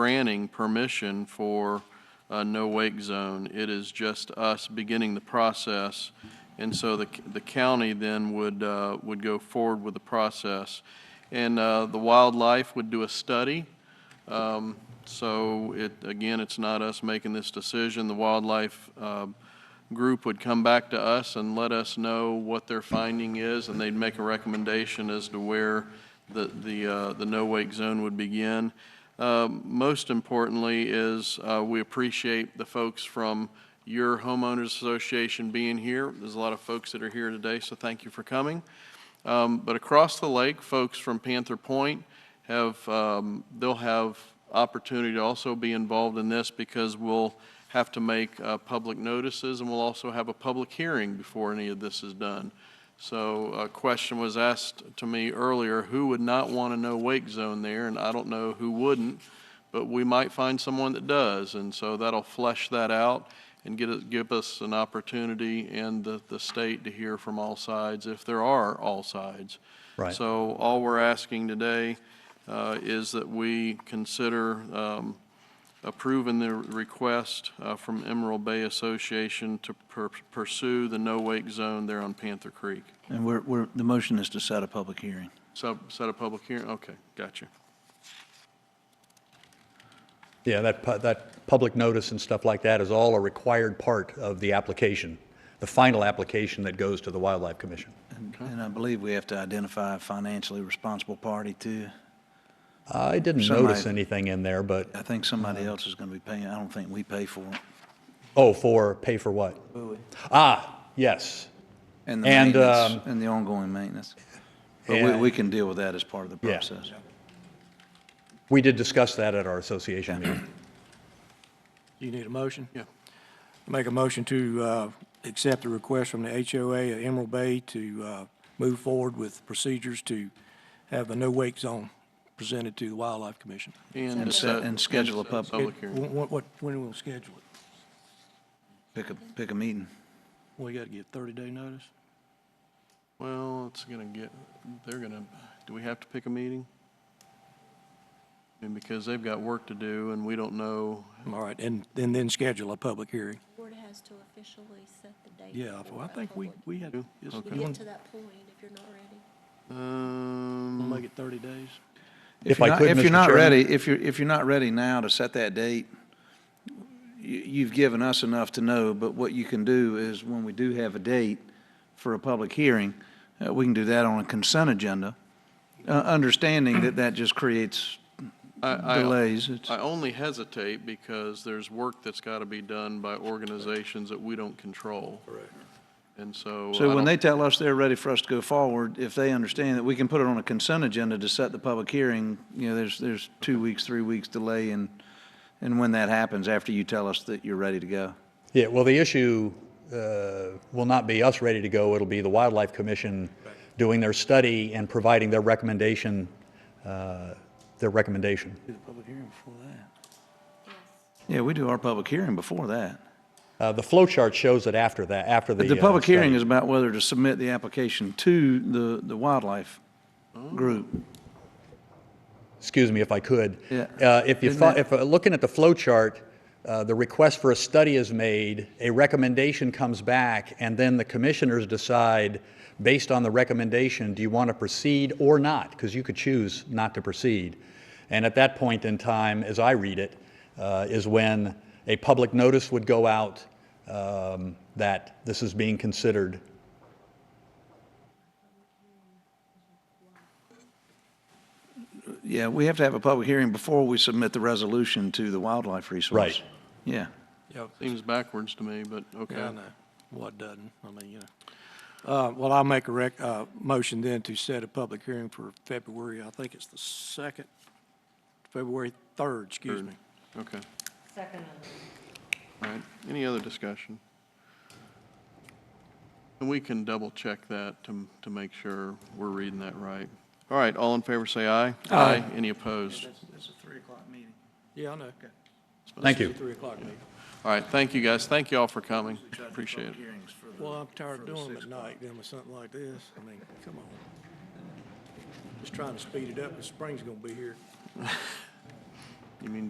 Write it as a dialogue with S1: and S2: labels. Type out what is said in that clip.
S1: granting permission for a no-wake zone. It is just us beginning the process, and so the, the county then would, uh, would go forward with the process. And uh, the wildlife would do a study. Um, So it, again, it's not us making this decision. The wildlife um, group would come back to us and let us know what their finding is, and they'd make a recommendation as to where the, the, uh, the no-wake zone would begin. Um, Most importantly is, uh, we appreciate the folks from your homeowners association being here. There's a lot of folks that are here today, so thank you for coming. Um, But across the lake, folks from Panther Point have, um, they'll have opportunity to also be involved in this because we'll have to make uh, public notices and we'll also have a public hearing before any of this is done. So a question was asked to me earlier, who would not want to know wake zone there? And I don't know who wouldn't, but we might find someone that does. And so that'll flesh that out and get, it- give us an opportunity and the, the state to hear from all sides, if there are all sides.
S2: Right.
S1: So all we're asking today uh, is that we consider um, approving the request uh, from Emerald Bay Association to pur- pursue the no-wake zone there on Panther Creek.
S2: And we're, we're, the motion is to set a public hearing.
S1: So set a public hearing? Okay, gotcha.
S3: Yeah, that, pu- that public notice and stuff like that is all a required part of the application, the final application that goes to the Wildlife Commission.
S2: And and I believe we have to identify a financially responsible party too.
S3: I didn't
S2: Somebody-
S3: notice anything in there, but,
S2: I think somebody else is going to be paying, I don't think we pay for it.
S3: oh, for, pay for what? Ah, yes.
S2: And the
S3: And,
S2: maintenance,
S3: um,
S2: and the ongoing maintenance. But we,
S3: Yeah.
S2: we can deal with that as part of the
S3: Yeah.
S2: process.
S3: We did discuss that at our association meeting.
S4: You need a motion?
S1: Yeah.
S4: Make a motion to uh, accept the request from the HOA at Emerald Bay to uh, move forward with procedures to have a no-wake zone presented to the Wildlife Commission.
S1: And
S2: And
S1: to
S2: set-
S1: set-
S2: and schedule a
S1: set
S2: public-
S1: Public hearing.
S4: When- when- What, when we'll schedule it?
S2: Pick a, pick a meeting.
S4: We got to get 30-day notice?
S1: Well, it's going to get, they're going to, do we have to pick a meeting? And because they've got work to do and we don't know,
S4: All right, and, and then schedule a public hearing.
S5: Board has to officially set the date.
S4: Yeah,
S5: for
S4: well, I
S5: a
S4: think we,
S5: public-
S4: we had, is-
S5: You
S4: you
S5: get
S4: want
S5: to that point if you're not ready.
S4: to
S1: um,
S4: make it 30 days?
S3: If
S2: you're
S3: I
S2: not-
S3: could,
S2: If you're
S3: Mr.
S2: not
S3: Chairman.
S2: ready, if you're, if you're not ready now to set that date, you, you've given us enough to know, but what you can do is when we do have a date for a public hearing, uh, we can do that on a consent agenda, uh, understanding that that just creates
S1: I- I-
S2: delays. It's-
S1: I only hesitate because there's work that's got to be done by organizations that we don't control. Correct. And so. I
S2: So when
S1: don't-
S2: they tell us they're ready for us to go forward, if they understand that we can put it on a consent agenda to set the public hearing, you know, there's, there's two weeks, three weeks delay in, in when that happens after you tell us that you're ready to go.
S3: Yeah, well, the issue uh, will not be us ready to go, it'll be the Wildlife Commission doing their study and providing their recommendation, uh, their recommendation.
S2: Do the public hearing before that.
S5: Yes.
S2: Yeah, we do our public hearing before that.
S3: Uh, The flow chart shows it after that, after the.
S2: But the
S3: uh,
S2: public hearing
S3: study.
S2: is about whether to submit the application to the, the wildlife group.
S3: excuse me if I could.
S2: Yeah.
S3: Uh, If you,
S2: Isn't
S3: fo-
S2: that-
S3: if, uh, looking at the flow chart, uh, the request for a study is made, a recommendation comes back, and then the commissioners decide, based on the recommendation, do you want to proceed or not? Because you could choose not to proceed. And at that point in time, as I read it, uh, is when a public notice would go out um, that this is being considered.
S2: Yeah, we have to have a public hearing before we submit the resolution to the wildlife resource.
S3: Right.
S2: Yeah.
S4: Yeah,
S1: Seems backwards to me, but okay.
S4: Yeah, I know. What doesn't, I mean, you know. Uh, Well, I'll make a rec, uh, motion then to set a public hearing for February, I think it's the second, February 3rd, excuse me.
S1: Okay.
S6: Second.
S1: All right. Any other discussion? And we can double check that to, to make sure we're reading that right. All right, all in favor, say aye. Aye. Any opposed?
S2: That's a three o'clock meeting.
S4: Yeah, I know.
S3: Thank you.
S4: 3 o'clock meeting.
S1: All right, thank you, guys. Thank you all for coming. Appreciate it.
S4: Well, I'm tired of doing them at night, then with something like this. I mean, come on. Just trying to speed it up, because spring's going to be here.
S1: You mean